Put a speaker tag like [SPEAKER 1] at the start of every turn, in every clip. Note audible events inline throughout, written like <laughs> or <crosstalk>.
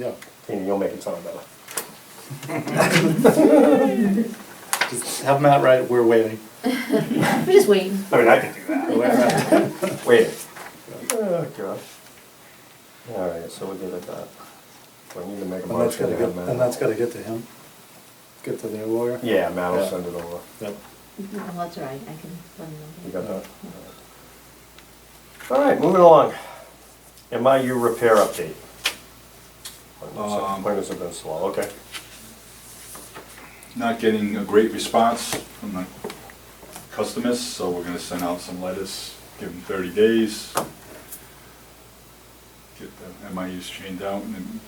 [SPEAKER 1] Yeah.
[SPEAKER 2] and you'll make it sound better.
[SPEAKER 1] Just have Matt write, we're waiting.
[SPEAKER 3] We're just waiting.
[SPEAKER 2] I mean, I could do that. Wait. Oh, God. All right, so we'll give it that. Do I need to make a
[SPEAKER 1] And that's
[SPEAKER 2] motion
[SPEAKER 1] gotta
[SPEAKER 2] to
[SPEAKER 1] get,
[SPEAKER 2] have Matt?
[SPEAKER 1] and that's gotta get to him. Get to their lawyer.
[SPEAKER 2] Yeah, Matt will
[SPEAKER 1] Yeah.
[SPEAKER 2] send it over.
[SPEAKER 1] Yep.
[SPEAKER 3] No, that's all right, I can let him
[SPEAKER 2] You
[SPEAKER 3] know.
[SPEAKER 2] got that? All right, moving along. MIU repair update.
[SPEAKER 4] Um,
[SPEAKER 2] Appointments have been slow, okay.
[SPEAKER 4] not getting a great response from the customers, so we're gonna send out some letters, give them thirty days. Get the MIUs chained out and then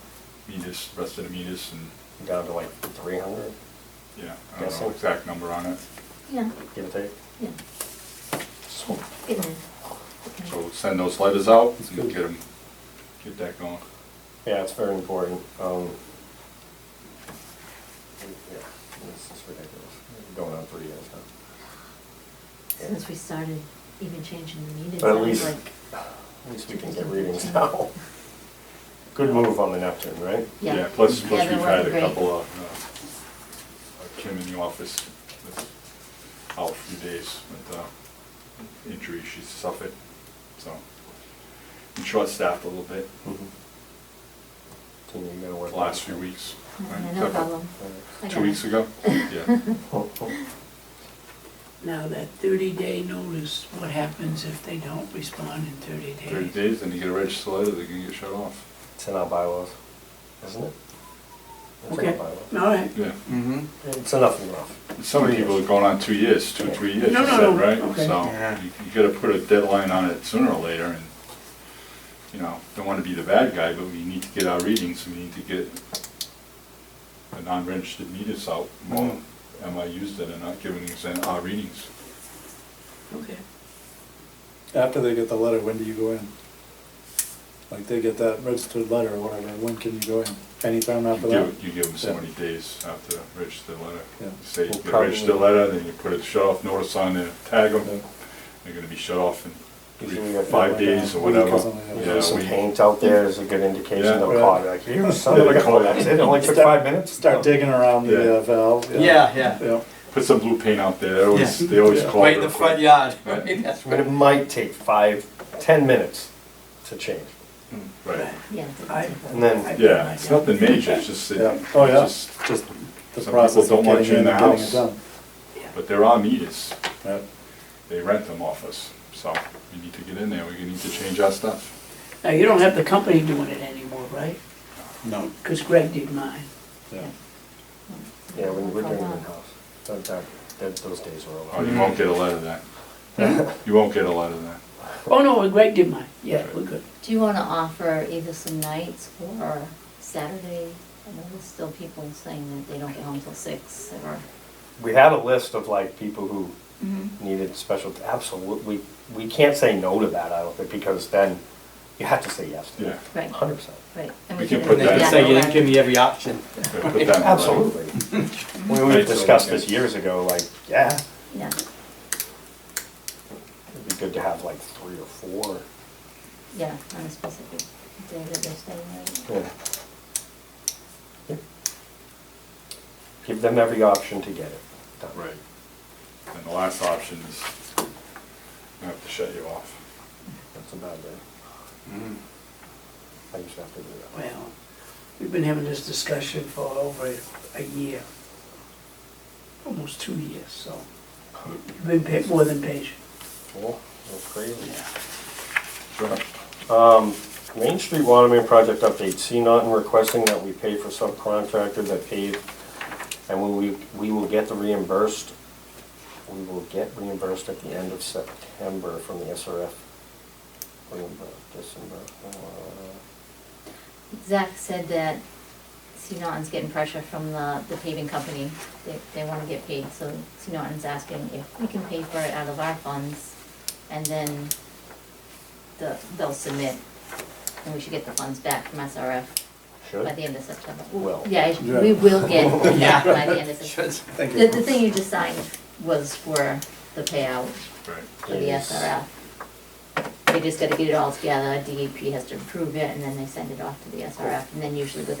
[SPEAKER 4] meters, rest of the meters and,
[SPEAKER 2] Down to like three hundred,
[SPEAKER 4] yeah, I don't know
[SPEAKER 2] Guessing.
[SPEAKER 4] exact number on it.
[SPEAKER 3] Yeah,
[SPEAKER 2] give or take.
[SPEAKER 3] yeah,
[SPEAKER 2] So,
[SPEAKER 3] get in.
[SPEAKER 4] So we'll send those letters out and get them, get that going.
[SPEAKER 2] Yeah, it's very important. Um, yeah, This is ridiculous. Going on three years now.
[SPEAKER 3] Since we started even changing the meetings, I
[SPEAKER 2] But at
[SPEAKER 3] was
[SPEAKER 2] least,
[SPEAKER 3] like,
[SPEAKER 2] at least we can get readings <laughs> now. Good move on the Neptune, right?
[SPEAKER 3] yeah.
[SPEAKER 4] Plus,
[SPEAKER 3] Yeah,
[SPEAKER 4] plus
[SPEAKER 3] they're
[SPEAKER 4] we've had
[SPEAKER 3] working
[SPEAKER 4] a
[SPEAKER 3] great.
[SPEAKER 4] couple of, uh, Kim in the office, that's out a few days with, uh, injury she suffered, so. I'm short-staffed a little bit
[SPEAKER 2] Team, you gotta
[SPEAKER 4] the
[SPEAKER 2] work.
[SPEAKER 4] last few weeks.
[SPEAKER 3] Yeah,
[SPEAKER 4] right?
[SPEAKER 3] No problem. I got
[SPEAKER 4] Two weeks
[SPEAKER 3] it. <laughs>
[SPEAKER 4] ago, yeah.
[SPEAKER 5] Now, that thirty-day notice, what happens if they don't respond in thirty days?
[SPEAKER 4] Thirty days, then you get a register letter, they're gonna get shut off.
[SPEAKER 2] <laughs> It's in our bylaws, isn't it? It's in our
[SPEAKER 5] Okay,
[SPEAKER 2] bylaws.
[SPEAKER 5] all right.
[SPEAKER 4] Yeah.
[SPEAKER 1] Mm-hmm.
[SPEAKER 2] It's enough and enough.
[SPEAKER 4] Some people are going on two years, two, three years, you
[SPEAKER 5] No, no,
[SPEAKER 4] said,
[SPEAKER 5] no,
[SPEAKER 4] right?
[SPEAKER 5] okay.
[SPEAKER 1] Yeah.
[SPEAKER 4] So you you gotta put a deadline on it sooner or later and, you know, don't wanna be the bad guy, but we need to get our readings, we need to get the non-registered meters out more. Am I used it or not giving us an- our readings?
[SPEAKER 5] Okay.
[SPEAKER 1] After they get the letter, when do you go in? Like they get that registered letter or whatever, when can you go in? Anytime
[SPEAKER 4] You
[SPEAKER 1] after that?
[SPEAKER 4] give, you give them so
[SPEAKER 1] Yeah.
[SPEAKER 4] many days after the registered letter.
[SPEAKER 1] Yeah.
[SPEAKER 4] Say,
[SPEAKER 2] Well,
[SPEAKER 4] you
[SPEAKER 2] probably-
[SPEAKER 4] register letter, then you put a shut off notice on there, tag them, they're gonna be shut off in
[SPEAKER 2] Usually
[SPEAKER 4] three-
[SPEAKER 2] we have
[SPEAKER 4] five
[SPEAKER 1] like a
[SPEAKER 4] days or
[SPEAKER 1] week or
[SPEAKER 4] whatever.
[SPEAKER 1] something like that.
[SPEAKER 4] Yeah,
[SPEAKER 2] There's some
[SPEAKER 4] we-
[SPEAKER 2] paint out there is a good indication
[SPEAKER 4] Yeah.
[SPEAKER 2] they'll
[SPEAKER 1] Right.
[SPEAKER 2] call you, like, you son of a
[SPEAKER 4] They call
[SPEAKER 2] gun,
[SPEAKER 4] you.
[SPEAKER 2] that's it, it only took
[SPEAKER 1] Start-
[SPEAKER 2] five minutes.
[SPEAKER 1] Start digging around the
[SPEAKER 4] Yeah.
[SPEAKER 1] uh, valve.
[SPEAKER 6] Yeah, yeah.
[SPEAKER 1] Yeah.
[SPEAKER 4] Put some blue paint out there, they always,
[SPEAKER 6] Yeah.
[SPEAKER 4] they always
[SPEAKER 1] Yeah.
[SPEAKER 4] call.
[SPEAKER 6] Right in
[SPEAKER 4] real
[SPEAKER 6] the front
[SPEAKER 4] quick.
[SPEAKER 6] yard, <laughs>
[SPEAKER 4] Right.
[SPEAKER 6] right, that's
[SPEAKER 2] But
[SPEAKER 6] right.
[SPEAKER 2] it might take five, ten minutes to change.
[SPEAKER 4] Right,
[SPEAKER 3] Yeah.
[SPEAKER 5] I-
[SPEAKER 2] And then,
[SPEAKER 5] I-
[SPEAKER 4] yeah, it's nothing major, it's just, it-
[SPEAKER 1] Yeah. Oh, yeah.
[SPEAKER 4] it's just,
[SPEAKER 1] Just the
[SPEAKER 4] Some
[SPEAKER 1] process
[SPEAKER 4] people
[SPEAKER 1] of
[SPEAKER 4] don't want
[SPEAKER 1] getting
[SPEAKER 4] you
[SPEAKER 1] in and
[SPEAKER 4] in the
[SPEAKER 1] getting it
[SPEAKER 4] house.
[SPEAKER 1] done.
[SPEAKER 5] Yeah.
[SPEAKER 4] but there are meters,
[SPEAKER 1] Right.
[SPEAKER 4] they rent them off us, so we need to get in there, we need to change our stuff.
[SPEAKER 5] Now, you don't have the company doing it anymore, right?
[SPEAKER 1] No.
[SPEAKER 5] Because Greg did mine.
[SPEAKER 1] Yeah.
[SPEAKER 2] yeah, we we're doing it
[SPEAKER 3] Hold on.
[SPEAKER 2] in-house. That, that, that- those days were
[SPEAKER 4] Oh,
[SPEAKER 2] over.
[SPEAKER 4] you won't get a letter then, you won't get a letter then.
[SPEAKER 5] Oh, no, Greg did mine, yeah, we're good.
[SPEAKER 3] Do you wanna offer either some nights or Saturday? I know there's still people saying that they don't get home till six or.
[SPEAKER 2] We had a list of like people who needed special, absolutely, we can't say no to that, I don't think, because then you have to say yes to it.
[SPEAKER 3] Right.
[SPEAKER 2] Hundred percent.
[SPEAKER 3] Right. and
[SPEAKER 4] We can
[SPEAKER 3] could-
[SPEAKER 4] put
[SPEAKER 6] They
[SPEAKER 4] that-
[SPEAKER 6] can say you didn't give me every option.
[SPEAKER 4] Yeah, put that in the letter.
[SPEAKER 2] Absolutely. We, we
[SPEAKER 4] Right, so
[SPEAKER 2] discussed
[SPEAKER 4] we
[SPEAKER 2] this
[SPEAKER 4] can-
[SPEAKER 2] years ago, like, yeah,
[SPEAKER 3] Yeah,
[SPEAKER 2] it'd be good to have like three or four.
[SPEAKER 3] yeah, on a specific day that they're staying right.
[SPEAKER 2] Yeah. Yeah. Give them every option to get it. done.
[SPEAKER 4] Right. And the last option is, I have to shut you off.
[SPEAKER 2] That's a bad day. I used to have to do that.
[SPEAKER 5] Well, we've been having this discussion for over a year, almost two years, so you've been pa- more than patient.
[SPEAKER 2] Cool, that's crazy.
[SPEAKER 4] Sure.
[SPEAKER 2] Um, Main Street Water Main Project update, C Norton requesting that we pay for subcontractor that paved, and we, we- we will get the reimbursed, we will get reimbursed at the end of September from the SRF. Reimbursed, disbursed, uh,
[SPEAKER 3] Zach said that Seanorton's getting pressure from the, the paving company. They, they wanna get paid, so Seanorton's asking if we can pay for it out of our funds and then the, they'll submit and we should get the funds back from SRF
[SPEAKER 2] Should?
[SPEAKER 3] by the end of September.
[SPEAKER 2] Will.
[SPEAKER 3] Yeah, I- we will get
[SPEAKER 6] Yeah.
[SPEAKER 3] that by the end of September.
[SPEAKER 6] <laughs> Should-
[SPEAKER 1] Thank
[SPEAKER 3] The, the
[SPEAKER 1] you.
[SPEAKER 3] thing you just signed was for the payout
[SPEAKER 4] Right.
[SPEAKER 3] for the
[SPEAKER 2] Yes.
[SPEAKER 3] SRF. E They just gotta get it all together, DEP has to approve it and then they send it off to the SRF and then usually within